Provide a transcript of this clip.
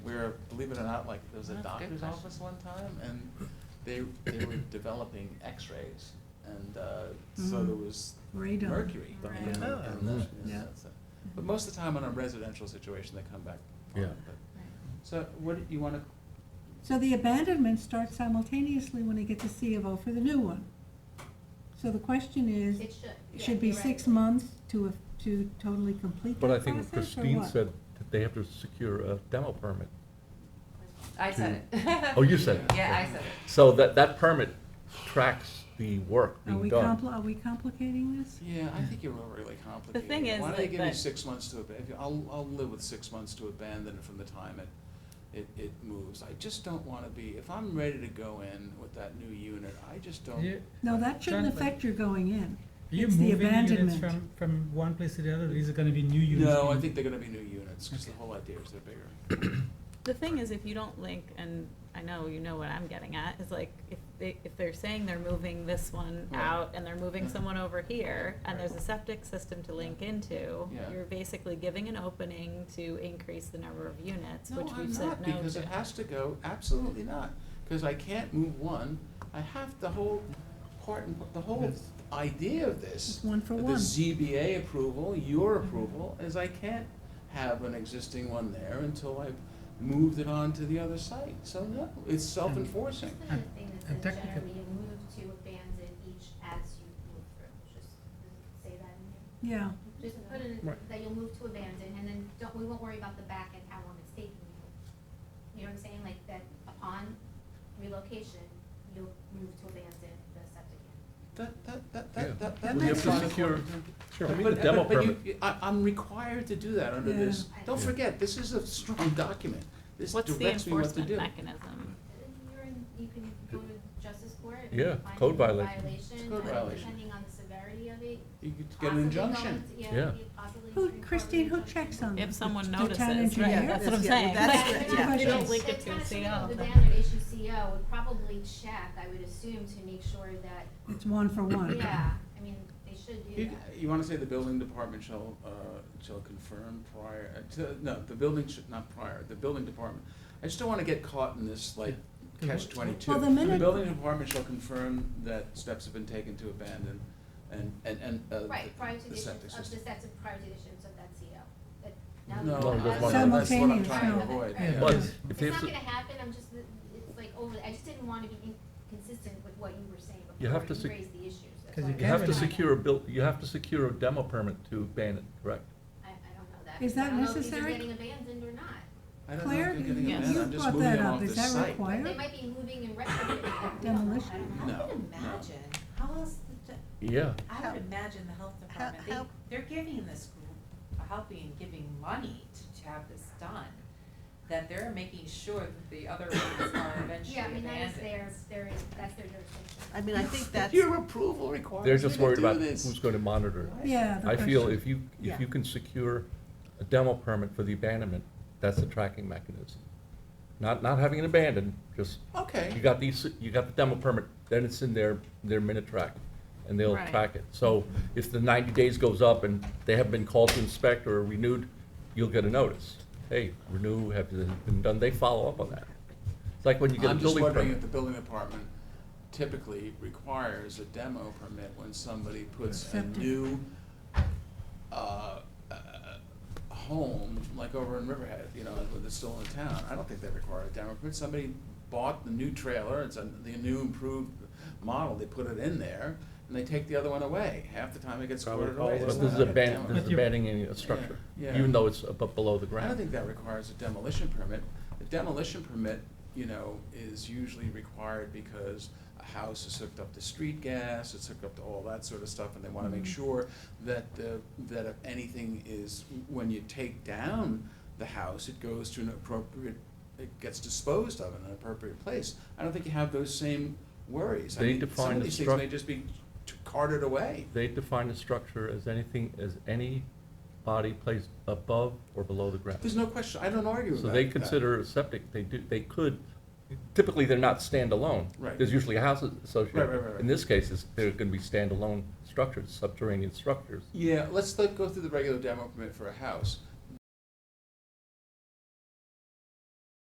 where, believe it or not, like, there was a That's a good doctor's question. office one time, and they, they were developing x-rays, and, uh, so Mhm. there was Radon. mercury. Right. in the- Yeah. in the- Mhm. yeah, Yeah. so- But most of the time on a residential situation, they come back. fine, Yeah. but- Right. So what, do you wanna, So the abandonments start simultaneously when they get the C of O for the new one. So the question is, It should. it yeah, should be you're right. six months to, to totally complete that But I process, or think what? what Christine said, that they have to secure a demo permit. I said it. Oh, you said Hmm. it. Yeah, I said it. So that, that permit tracks the work Are being we done. compli, are we complicating this? yeah, I think you're overly complicated. thing is Why don't they that- give you that- six months to abandon, I'll, I'll live with six months to abandon it from the time it, it, it moves. I just don't wanna be, if I'm ready to go in with that new unit, I just Yeah, don't, No, that shouldn't Jonathan. affect your going in. You're It's the moving units abandonment. from, from one place to the other, these are gonna be new units. no, I being- think they're gonna be new units, cause the whole idea is they're bigger. The thing is, if you don't link, and I know you know what I'm getting at, is like, if they, if they're saying they're moving this one Right. out and they're moving Yeah. someone over here, and Right. there's a septic system to link into, Yeah. you're basically giving an opening to increase the number of units, No, which I'm we've said not, no to. because it has to go, absolutely not, because I can't move one, I have the whole part, and- the Oh. whole Yes. idea of this. It's one for The one. ZBA approval, your approval, is I can't have an existing one there until I've moved it on to the other site, so no, it's self-enforcing. Just another thing And that says technical- generally move to abandon each as you move through, just say that in there. Yeah, Just put in Right. that you'll move to abandon and then don't, we won't worry about the back and how long it's taking you. You know what I'm saying, like that upon relocation, you'll move to abandon the septic unit. That, that, that, Yeah. that, that, that Well, you makes have to sense. secure- Sure, I mean, the But- demo but- but you- permit, I, I'm required to do that under Yeah. this, don't Yeah. forget, this is a strong document, this What's the directs me what to enforcement do. mechanism? And You're in, you can go to justice court and Yeah, find code it a violation. violation, Code and violation. depending on the severity of it, You could get an possibly injunction. going to- Yeah. you possibly Who- can call it Christine, who an injunction. checks on If someone The town notices, right, engineer? that's what I'm Yeah, that's- saying. yeah, that's Like, good, if yeah. You don't link The it to a person CO. with The banner issue CO would probably check, I would assume, to make sure that, it's one for one. yeah, I mean, they should do You, that. you wanna say the building department shall, uh, shall confirm prior, uh, to, no, the building should, not prior, the building department. I just don't wanna get caught in this, like, Yeah. catch twenty-two. Well, the minute- building department shall confirm that steps have been taken to abandon and, and, and, uh, Right, prior to the the septic issuance of the system. set, prior to the issuance of that CO. But now No, No, that- that's that's what one- I'm Simultaneous, trying to no. avoid. Yeah. yeah. but Yes. if It's they not have to- gonna happen, I'm just, it's like over, I just didn't wanna be inconsistent with what you were saying You before have to you sec- raised the issues. That's 'Cause why you I'm you have to trying secure a bill, you have to secure a demo permit to ban it, correct? I, I don't know that. Is that necessary? I don't know if these are getting abandoned or not. I don't know Claire, if you're getting you Yes. abandoned, you I'm just brought moving that them off up, the is that site. They required? might be moving in retrograde. I don't know. I Demolition. don't know. No, I would no. imagine, how else, the t- Yeah. I would imagine the health department, they, how- they're giving this group, helping and giving money to, to have this done. That they're making sure that the other ones are eventually Yeah, I mean, abandoned. that is their, their, that's their jurisdiction. I mean, I think that's. Your approval requires They're me just to worried do about this. who's going to monitor it. Yeah, the I feel question. if you, if Yeah. you can secure a demo permit for the abandonment, that's a tracking mechanism. Not, not having it abandoned, just, Okay. you got these, you got the demo permit, then it's in their, their minute track, and they'll Right. track it. So if the ninety days goes up and they have been called to inspect or renewed, you'll get a notice. Hey, renew, have you been done, they follow up on that. It's like when you get a I'm just building permit. wondering if the building department typically requires a demo permit when somebody puts a Septic. new, uh, uh, home, like over in Riverhead, you know, that's still in town, I don't think they require a demo permit, somebody bought the new trailer, it's a, the new improved model, they put it in there, and they take the other one away, half the time it gets But squirted away. It's this is not a aban- demo this permit. is abandoning a structure, Yeah, yeah. even though it's above, below the I don't ground. think that requires a demolition permit. The demolition permit, you know, is usually required because a house is hooked up to street gas, it's hooked up to all that sort of stuff, and they wanna Mm-hmm. make sure that the, that if anything is, when you take down the house, it goes to an appropriate, it gets disposed of in an appropriate place. I don't think you have those same worries. I They mean, Some define of the these things may struct- just be t- carted away. They define a structure as anything, as any body placed above or below the ground. There's no question, I don't argue with So that. they that. consider a septic, they do, they could, typically, they're not standalone. Right. There's usually a house Right, right, right, associated. right. In this case, it's, they're gonna be standalone structures, subterranean structures. Yeah, let's like go through the regular demo permit for a house.